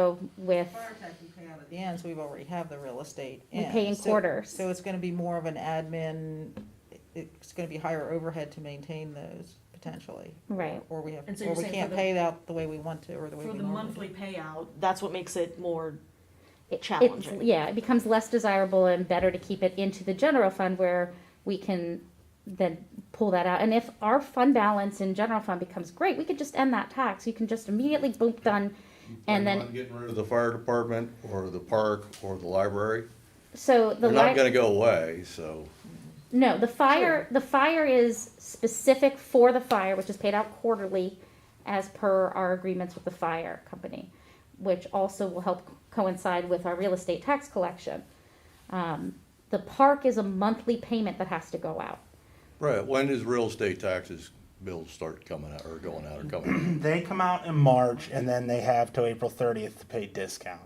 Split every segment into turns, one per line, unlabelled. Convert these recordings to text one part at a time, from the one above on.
So with,
Fire tax we pay out at the end, so we've already have the real estate
We
in.
pay in
So-
quarters.
So it's gonna be more of an admin, it- it's gonna be higher overhead to maintain those potentially.
Right.
Or we have,
And so
or
you're
we
saying for
can't
the-
pay it out the way we want to, or the way
For
we
the
normally.
monthly
do.
payout, that's what makes it more
it- it's,
challenging.
yeah, it becomes less desirable and better to keep it into the general fund where we can then pull that out. And if our fund balance in general fund becomes great, we could just end that tax. You can just immediately boom, done. And
Plan
then,
on Getting rid of the fire department, or the park, or the library.
so the
They're not
li-
gonna go away, so.
no, the fire, the fire is specific for the fire, which is paid out quarterly as per our agreements with the fire company, which also will help coincide with our real estate tax collection. Um, the park is a monthly payment that has to go out.
Right, when does real estate taxes bills start coming out, or going out, or coming
They come out in March, and then they have till April 30th to pay discount.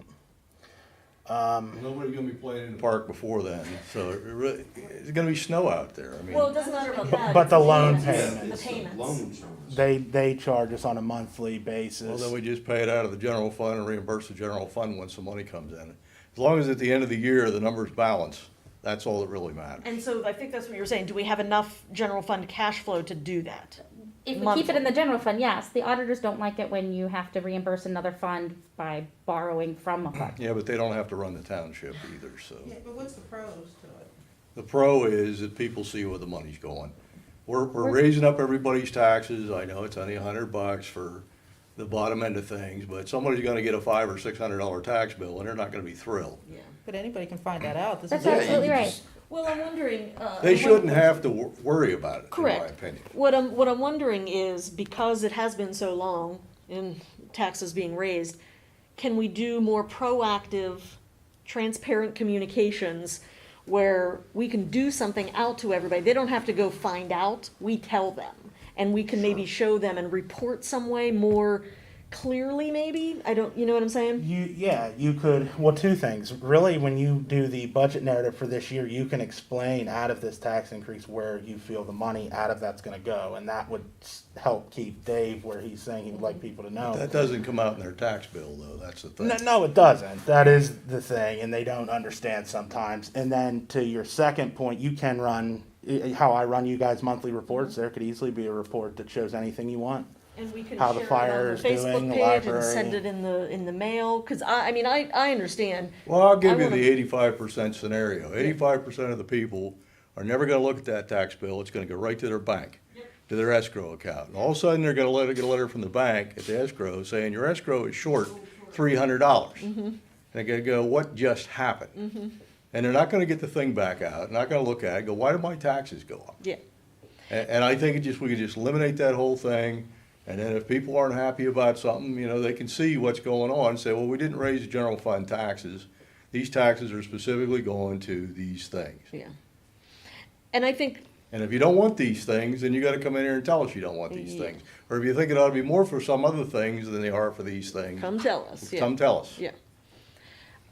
out? Nobody's gonna be playing in the park before then, so it really, it's gonna be snow out there, I
Well, it
mean.
doesn't matter about
But-
that.
but
it's
the loan
payments,
payments.
The payments.
Loan service.
They they charge us on a monthly basis.
Well, then we just pay it out of the general fund and reimburse the general fund once the money comes in. As long as at the end of the year, the numbers balance, that's all that really matters.
And so I think that's what you were saying, do we have enough general fund cash flow to do that?
If we keep it
Monthly.
in the general fund, yes, the auditors don't like it when you have to reimburse another fund by borrowing from a fund.
Yeah, but they don't have to run the township either, so.
Yeah, but what's the pros to it?
The pro is that people see where the money's going. We're, we're raising up everybody's taxes, I know it's only a hundred bucks for the bottom end of things, but somebody's gonna get a five or six hundred dollar tax bill and they're not gonna be thrilled.
Yeah.
But anybody can find that out, this
That's
is.
absolutely right.
Well, I'm wondering. uh,
They
what-
shouldn't have to wor- worry about it, in my
Correct.
opinion.
What I'm, what I'm wondering is, because it has been so long in taxes being raised, can we do more proactive, transparent communications where we can do something out to everybody? They don't have to go find out, we tell them. And we can maybe show them and report some way more clearly, maybe? I don't, you know what I'm saying?
You yeah, you could well two things. Really when you do the budget narrative for this year, you can explain out of this tax increase where you feel the money out of that's going to go and that would s- help keep Dave where he's saying he would like people to know.
That doesn't come out in their tax bill though, that's the thing.
No, no, it doesn't. That is the thing, and they don't understand sometimes. And then to your second point, you can run i- how I run you guys monthly reports. There could easily be a report that shows anything you want.
And we can
How the
share it on
fire
the
is doing,
Facebook
the
page and send
library.
it in the, in the mail, because I, I mean, I, I understand.
Well, I'll give
I
you the
wanna-
eighty-five percent scenario. Eighty-five percent of the people are never gonna look at that tax bill. It's gonna go right to their bank, to their escrow account. And all of a sudden, they're gonna let, get a letter from the bank at the escrow saying, your escrow is short three hundred dollars.
Mm-hmm.
And they're gonna go, what just happened? And they're not gonna get the thing back out, not gonna look at it, go, why did my taxes go up?
Yeah.
And, and I think it just, we could just eliminate that whole thing, and then if people aren't happy about something, you know, they can see what's going on, and say, well, we didn't raise the general fund taxes. These taxes are specifically going to these things.
Yeah. And I think,
And if you don't want these things, then you gotta come in here and tell us you don't want
Mm-hmm.
these things. Or if you think it ought to be more for some other things than they are for these things,
come tell us, yeah.
come tell us.
Yeah.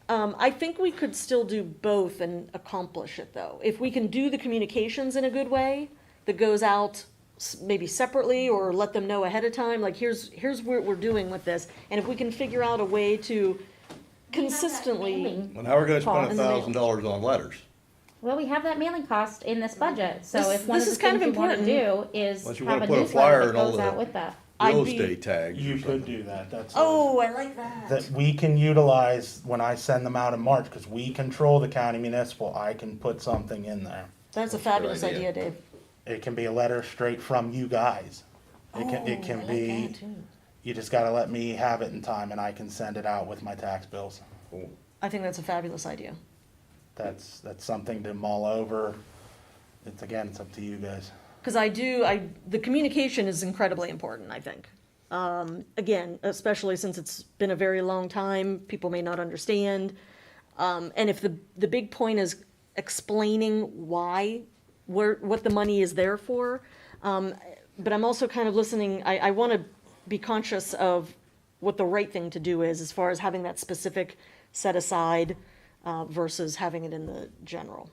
Um, I think we could still do both and accomplish it, though. If we can do the communications in a good way, that goes out s- maybe separately, or let them know ahead of time, like, here's, here's what we're doing with this. And if we can figure out a way to consistently,
Mailing.
And how we're gonna spend a
Cost.
thousand dollars on letters,
Well, we have that mailing cost in this budget, so
This-
if one of
this
the
is kind
things
of
you wanna do
important.
is
Unless you
have
wanna
a
put a
newsletter
flyer
that
and all
goes
that.
out with that.
I'd
real
be-
estate tags or
You could
something.
do that. That's
oh, I like
that
that.
we can utilize when I send them out in March because we control the county municipal. I can put something in there.
That's a fabulous
idea.
idea, Dave.
It can be a letter straight from you guys. It can it can
I like
be.
that, too.
You just got to let me have it in time, and I can send it out with my tax bills.
I think that's a fabulous idea.
that's that's something to mull over. It's again, it's up to you guys.
Because I do, I, the communication is incredibly important, I think. Um, again, especially since it's been a very long time, people may not understand. Um, and if the, the big point is explaining why, where, what the money is there for. Um, but I'm also kind of listening, I, I want to be conscious of what the right thing to do is as far as having that specific set aside uh, versus having it in the general.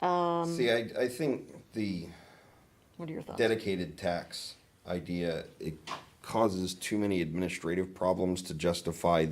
See, I, I think the
What are your thoughts?
dedicated tax idea, it causes too many administrative problems to justify